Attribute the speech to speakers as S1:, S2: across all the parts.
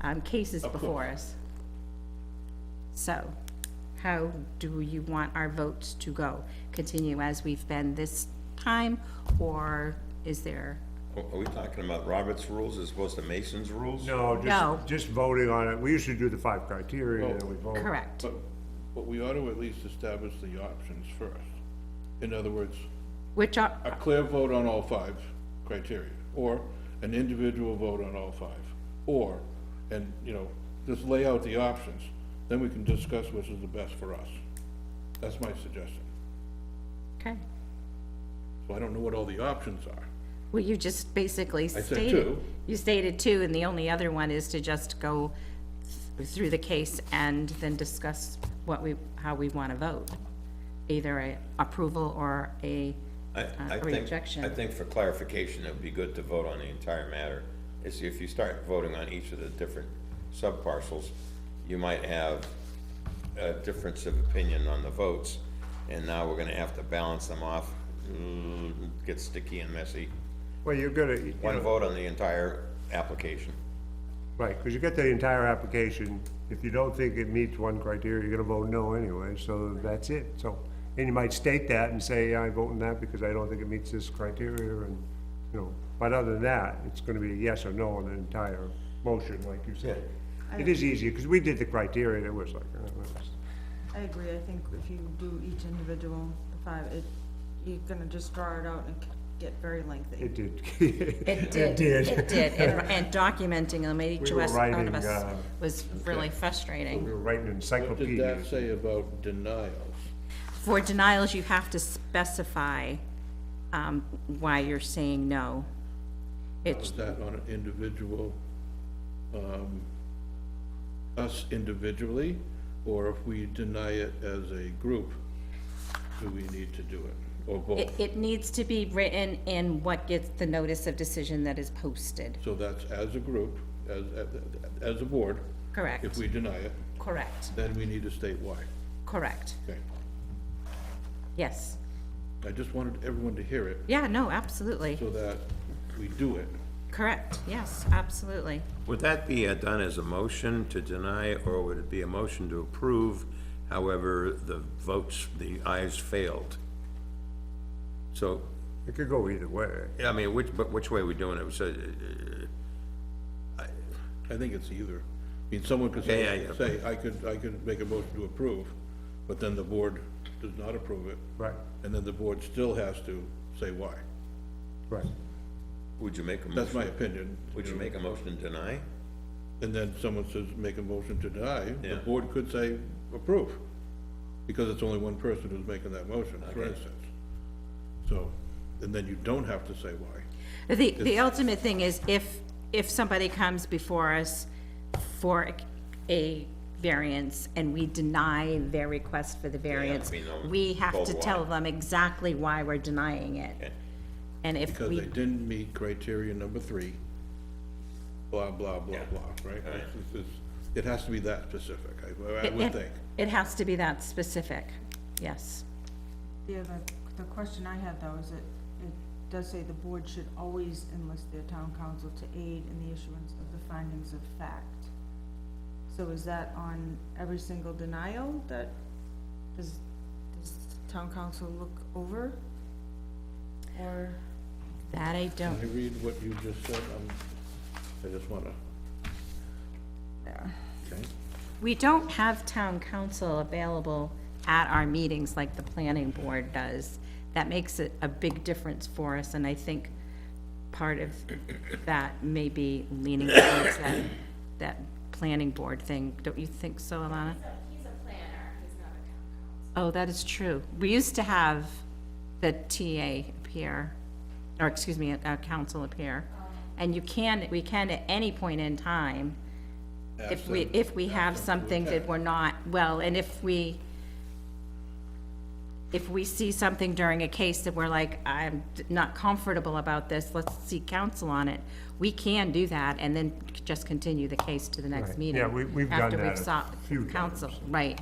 S1: um, cases
S2: Of course.
S1: before us. So how do you want our votes to go? Continue as we've been this time, or is there,
S3: Are are we talking about Robert's rules as opposed to Mason's rules?
S4: No,
S1: No.
S4: just, just voting on it. We used to do the five criteria and then we vote.
S1: correct?
S2: Oh, But, but we ought to at least establish the options first. In other words,
S1: Which are,
S2: a clear vote on all five criteria, or an individual vote on all five, or, and, you know, just lay out the options, then we can discuss which is the best for us. That's my suggestion.
S1: okay,
S2: So I don't know what all the options are.
S1: well, you just basically
S2: said
S1: stated,
S2: two.
S1: you stated two, and the only other one is to just go th- through the case and then discuss what we, how we want to vote, either a approval or a
S3: I, I
S1: uh,
S3: think,
S1: rejection.
S3: I think for clarification, it would be good to vote on the entire matter. It's if you start voting on each of the different subparcels, you might have a difference of opinion on the votes, and now we're gonna have to balance them off, Mm, gets sticky and messy.
S4: Well, you're gonna, you
S3: One
S4: know,
S3: vote on the entire application.
S4: right, because you get the entire application. If you don't think it meets one criteria, you're gonna vote no anyway, so that's it. So, and you might state that and say, I vote in that because I don't think it meets this criteria and, you know. But other than that, it's gonna be a yes or no on the entire motion, like you said. It is easier, because we did the criteria, and it was like, uh, that's-
S5: I agree, I think if you do each individual, the five, it, you're gonna just draw it out and c- get very lengthy.
S4: it did.
S1: It did,
S4: did.
S1: it did, and and documenting them, each
S4: We
S1: of
S4: were
S1: us, out of
S4: writing,
S1: us,
S4: uh,
S1: was really frustrating.
S4: We were writing
S2: What did that
S4: encyclopedias.
S2: say about denials?
S1: For denials, you have to specify um, why you're saying no. It's,
S2: Was that on an individual, um, us individually, or if we deny it as a group, do we need to do it, or
S1: it,
S2: both?
S1: it needs to be written in what gets the notice of decision that is posted,
S2: So that's as a group, as, as a board. If
S1: correct?
S2: we deny it,
S1: Correct,
S2: then we need to state why.
S1: correct,
S2: Okay.
S1: yes.
S2: I just wanted everyone to hear it
S1: Yeah, no, absolutely,
S2: so that we do it.
S1: correct, yes, absolutely.
S3: Would that be uh, done as a motion to deny, or would it be a motion to approve? However, the votes, the ayes failed. So,
S4: It could go either way.
S3: I mean, which, but which way are we doing it? So, uh,
S2: I think it's either. I mean, someone could
S3: Yeah, yeah,
S2: say,
S3: yeah.
S2: say, I could, I could make a motion to approve, but then the board does not approve it.
S4: Right,
S2: And then the board still has to say why.
S4: right.
S3: would you make a
S2: That's my
S3: motion?
S2: opinion.
S3: Would you make a motion to deny?
S2: And then someone says, make a motion to deny, the
S3: Yeah.
S2: board could say approve, because it's only one person who's making that motion, for
S3: Okay.
S2: instance. So, and then you don't have to say why.
S1: The, the ultimate thing is if, if somebody comes before us for a variance and we deny their request for the variance,
S3: we
S2: um,
S3: know
S1: we have to
S3: both
S1: tell
S3: why.
S1: them exactly why we're denying it.
S3: Okay.
S1: And if
S2: Because they
S1: we,
S2: didn't meet criteria number three, blah, blah, blah, blah, right? It's- it's- it's- It has to be that specific, I, I
S1: it,
S2: would
S1: it-
S2: think.
S1: it has to be that specific, yes.
S5: Yeah, the, the question I had though is it, it does say the board should always enlist their town council to aid in the issuance of the findings of fact. So is that on every single denial that, does, does town council look over? Or?
S1: That I
S2: Can I
S1: don't,
S2: read what you just said? Um, I just wanna,
S5: Yeah.
S2: okay?
S1: we don't have town council available at our meetings like the planning board does. That makes it a big difference for us, and I think part of that may be leaning towards that, that planning board thing. Don't you think so, Alana?
S6: He's a planner, he's not a town council.
S1: Oh, that is true. We used to have the TA appear, or excuse me, a council appear. And you can, we can at any point in time, if we, if we have something that we're not, well, and if we, if we see something during a case that we're like, I'm not comfortable about this, let's seek counsel on it, we can do that and then just continue the case to the next
S4: Right.
S1: meeting.
S4: Yeah, we- we've done
S1: after
S4: that
S1: we've
S4: a
S1: sought
S4: few
S1: Counsel,
S4: times.
S1: right.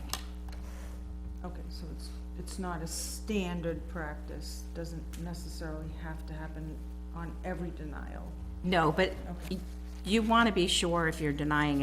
S5: Okay, so it's, it's not a standard practice, doesn't necessarily have to happen on every denial.
S1: No, but you want to be sure if you're denying a